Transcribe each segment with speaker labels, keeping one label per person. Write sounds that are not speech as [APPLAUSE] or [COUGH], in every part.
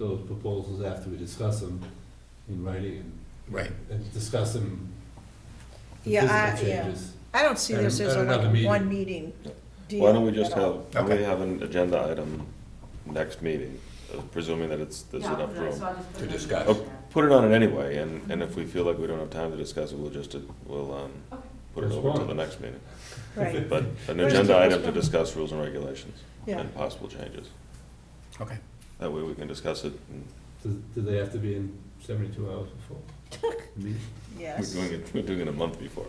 Speaker 1: those proposals after we discuss them in writing
Speaker 2: Right.
Speaker 1: and, and discuss them. the
Speaker 3: Yeah, I-
Speaker 1: physical
Speaker 3: yeah.
Speaker 1: changes.
Speaker 3: I don't see this
Speaker 1: At
Speaker 3: as
Speaker 1: an-
Speaker 3: a,
Speaker 1: at another
Speaker 3: like,
Speaker 1: meeting.
Speaker 3: one meeting deal.
Speaker 4: Why don't we just
Speaker 3: at all.
Speaker 4: have, why don't
Speaker 2: Okay.
Speaker 4: we have an agenda item next meeting, uh, presuming that it's, there's
Speaker 5: Yeah, I'll
Speaker 4: enough
Speaker 5: put it- so
Speaker 4: room?
Speaker 5: I'll just
Speaker 2: To
Speaker 5: put it on the
Speaker 2: discuss.
Speaker 5: agenda.
Speaker 4: Put it on it anyway, and, and if we feel like we don't have time to discuss it, we'll just, uh, we'll, um,
Speaker 5: Okay.
Speaker 4: put it
Speaker 1: That's
Speaker 4: over to
Speaker 1: fine.
Speaker 4: the next meeting.
Speaker 1: [LAUGHS]
Speaker 3: Right,
Speaker 4: But an
Speaker 3: There's
Speaker 4: agenda
Speaker 3: a-
Speaker 4: item to discuss rules and regulations
Speaker 3: yeah.
Speaker 4: and possible changes.
Speaker 2: Okay.
Speaker 4: That way we can discuss it, and
Speaker 1: Do, do they have to be in seventy-two hours
Speaker 3: [LAUGHS]
Speaker 1: before? the meeting?
Speaker 4: we're
Speaker 3: Yes.
Speaker 4: doing it, we're doing it a month before.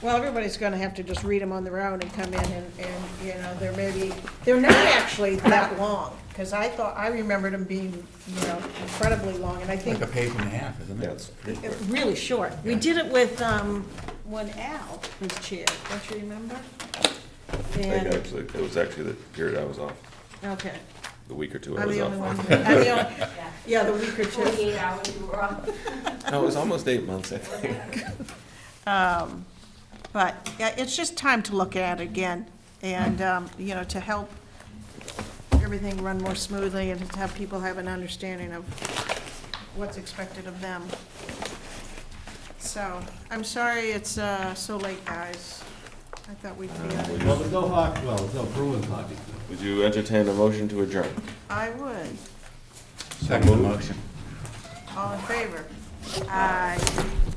Speaker 3: Well, everybody's gonna have to just read them on their own and come in and, and, you know, there may be, they're not actually that long, because I thought, I remembered them being, you know, incredibly long, and I
Speaker 1: [LAUGHS]
Speaker 3: think
Speaker 2: Like a page and a half, isn't it?
Speaker 4: Yeah, it's pretty quick.
Speaker 3: really short. We did it with, um, when Al was chair, don't you remember?
Speaker 4: I think
Speaker 3: And,
Speaker 4: actually, it was actually the period I was off,
Speaker 3: okay,
Speaker 4: the week or two I
Speaker 3: I'm
Speaker 4: was
Speaker 3: the
Speaker 4: off.
Speaker 3: only one, I'm the only,
Speaker 5: Yeah.
Speaker 3: yeah, the week or two.
Speaker 5: Forty-eight hours you were off.
Speaker 4: [LAUGHS] No, it was almost eight months, I
Speaker 3: [LAUGHS]
Speaker 4: think.
Speaker 3: Um, But, yeah, it's just time to look at it again, and, um, you know, to help everything run more smoothly and to have people have an understanding of what's expected of them. So, I'm sorry it's uh, so late, guys. I thought we'd be out of
Speaker 1: Well, there's no hockey, well, there's no Bruin hockey.
Speaker 4: Would you entertain a motion to adjourn?
Speaker 3: I would.
Speaker 2: Second motion.
Speaker 3: All in favor? Aye.